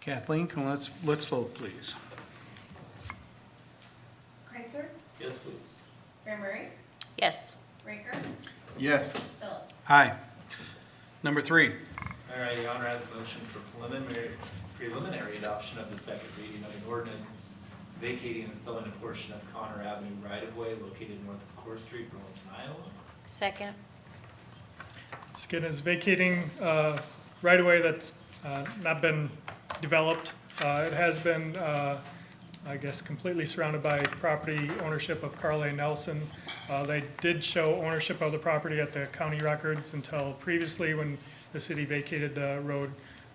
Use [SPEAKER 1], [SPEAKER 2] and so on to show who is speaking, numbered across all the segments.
[SPEAKER 1] Kathleen, can let's, let's vote, please.
[SPEAKER 2] Kreitzer,
[SPEAKER 3] Yes, please.
[SPEAKER 2] Graham Murray,
[SPEAKER 4] Yes.
[SPEAKER 2] Raker,
[SPEAKER 5] Yes.
[SPEAKER 2] Phillips.
[SPEAKER 1] Aye. Number three,
[SPEAKER 3] All right, Your Honor, I have a motion for preliminary, preliminary adoption of the second reading of an ordinance vacating the southern portion of Connor Avenue right-of-way located north of Core Street, Burlington, Iowa.
[SPEAKER 4] Second?
[SPEAKER 6] Skin is vacating uh, right away that's uh, not been developed. Uh, It has been, uh, I guess, completely surrounded by property ownership of Carl A. Nelson. Uh, They did show ownership of the property at the county records until previously when the city vacated the road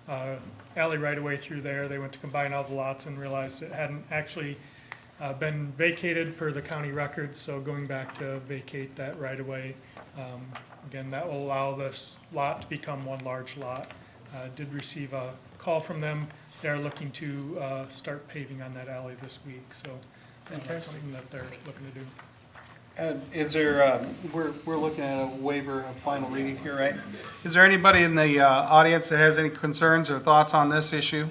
[SPEAKER 6] uh, alley right away through there. They went to combine all the lots and realized it hadn't actually uh, been vacated per the county records, so going back to vacate that right away. Um, Again, that will allow this lot to become one large lot. Uh, Did receive a call from them. They're looking to uh, start paving on that alley this week, so uh, that's
[SPEAKER 1] Fantastic.
[SPEAKER 6] something that they're looking to do.
[SPEAKER 1] And is there, um, we're, we're looking at a waiver of final reading here, right? Is there anybody in the uh, audience that has any concerns or thoughts on this issue?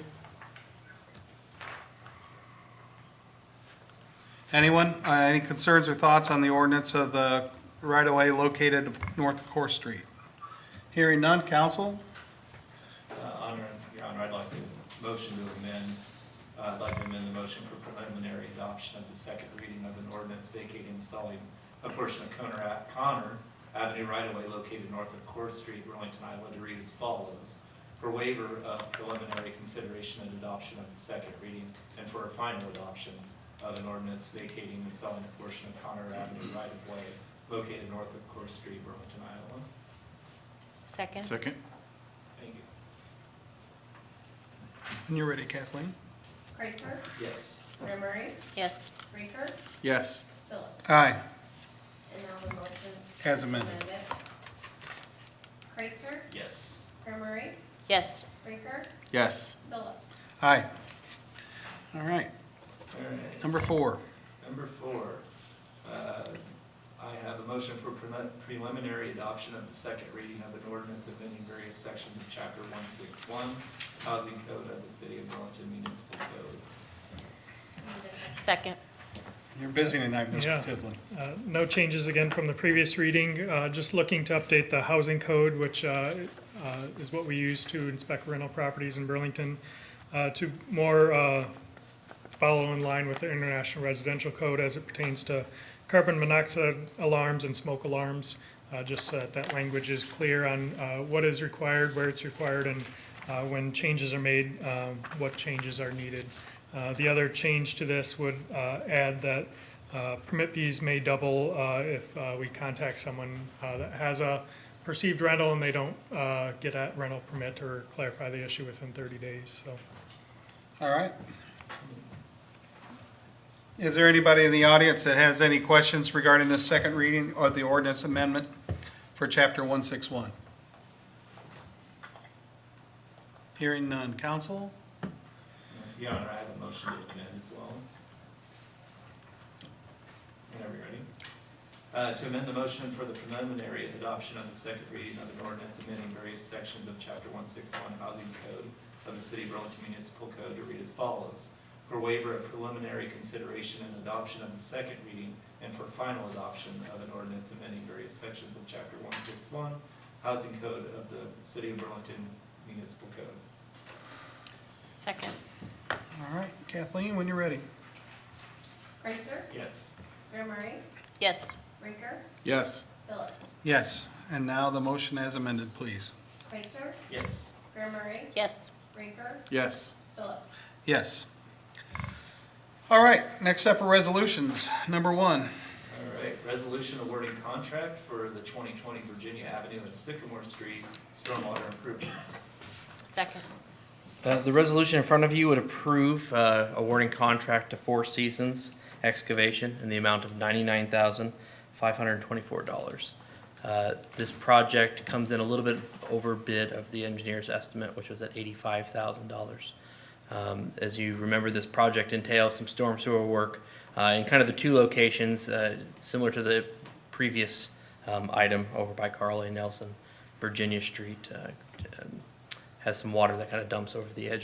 [SPEAKER 1] Anyone, Uh, any concerns or thoughts on the ordinance of the right-of-way located north of Core Street? Hearing none, council?
[SPEAKER 3] Uh, Honor, Your Honor, I'd like to motion to amend, uh, I'd like to amend the motion for preliminary adoption of the second reading of an ordinance vacating and selling a portion of Connor, Ave- Connor Avenue right-of-way located north of Core Street, Burlington, Iowa, to read as follows. For waiver of preliminary consideration and adoption of the second reading, and for a final adoption of an ordinance vacating and selling a portion of Connor Avenue right-of-way located north of Core Street, Burlington, Iowa.
[SPEAKER 4] Second?
[SPEAKER 5] Second?
[SPEAKER 3] Thank you.
[SPEAKER 1] When you're ready, Kathleen.
[SPEAKER 2] Kreitzer,
[SPEAKER 3] Yes.
[SPEAKER 2] Graham Murray,
[SPEAKER 4] Yes.
[SPEAKER 2] Raker,
[SPEAKER 5] Yes.
[SPEAKER 2] Phillips.
[SPEAKER 1] Aye.
[SPEAKER 2] And now the motion
[SPEAKER 1] As amended.
[SPEAKER 2] amended. Kreitzer,
[SPEAKER 3] Yes.
[SPEAKER 2] Graham Murray,
[SPEAKER 4] Yes.
[SPEAKER 2] Raker,
[SPEAKER 5] Yes.
[SPEAKER 2] Phillips.
[SPEAKER 1] Aye. All right,
[SPEAKER 3] All right.
[SPEAKER 1] number four.
[SPEAKER 3] Number four, uh, I have a motion for prelim- preliminary adoption of the second reading of an ordinance amending various sections of chapter one six one, housing code of the city of Burlington municipal code.
[SPEAKER 4] Second?
[SPEAKER 1] You're busy tonight, Mr.
[SPEAKER 6] Yeah.
[SPEAKER 1] Tislin.
[SPEAKER 6] Uh, No changes again from the previous reading, uh, just looking to update the housing code, which uh, uh, is what we use to inspect rental properties in Burlington, uh, to more uh, follow in line with the International Residential Code as it pertains to carbon monoxide alarms and smoke alarms, uh, just so that that language is clear on uh, what is required, where it's required, and uh, when changes are made, um, what changes are needed. Uh, The other change to this would uh, add that uh, permit fees may double uh, if uh, we contact someone uh, that has a perceived rental and they don't uh, get a rental permit or clarify the issue within 30 days, so.
[SPEAKER 1] All right. Is there anybody in the audience that has any questions regarding this second reading or the ordinance amendment for chapter 161? Hearing none. Council.
[SPEAKER 3] Your Honor, I have a motion to amend as well. Whenever you're ready. Uh, To amend the motion for the preliminary adoption of the second reading of an ordinance amending various sections of Chapter 161 Housing Code of the City of Burlington Municipal Code to read as follows. For waiver of preliminary consideration and adoption of the second reading and for final adoption of an ordinance amending various sections of Chapter 161 Housing Code of the City of Burlington Municipal Code.
[SPEAKER 4] Second?
[SPEAKER 1] All right, Kathleen, when you're ready.
[SPEAKER 2] Kreitzer,
[SPEAKER 3] Yes.
[SPEAKER 2] Graham Murray,
[SPEAKER 4] Yes.
[SPEAKER 2] Raker,
[SPEAKER 5] Yes.
[SPEAKER 2] Phillips.
[SPEAKER 1] Yes, and now the motion as amended, please.
[SPEAKER 2] Kreitzer,
[SPEAKER 3] Yes.
[SPEAKER 2] Graham Murray,
[SPEAKER 4] Yes.
[SPEAKER 2] Raker,
[SPEAKER 5] Yes.
[SPEAKER 2] Phillips.
[SPEAKER 1] Yes. All right, next up are resolutions. Number one,
[SPEAKER 3] All right, resolution awarding contract for the 2020 Virginia Avenue and Sycamore Street stormwater improvements.
[SPEAKER 4] Second?
[SPEAKER 7] Uh, The resolution in front of you would approve uh, awarding contract to Four Seasons Excavation in the amount of $99,524. Uh, This project comes in a little bit over bid of the engineer's estimate, which was at $85,000. Um, As you remember, this project entails some storm sewer work uh, in kind of the two locations, uh, similar to the previous um, item over by Carl A. Nelson, Virginia Street, uh, um, has some water that kind of dumps over the edge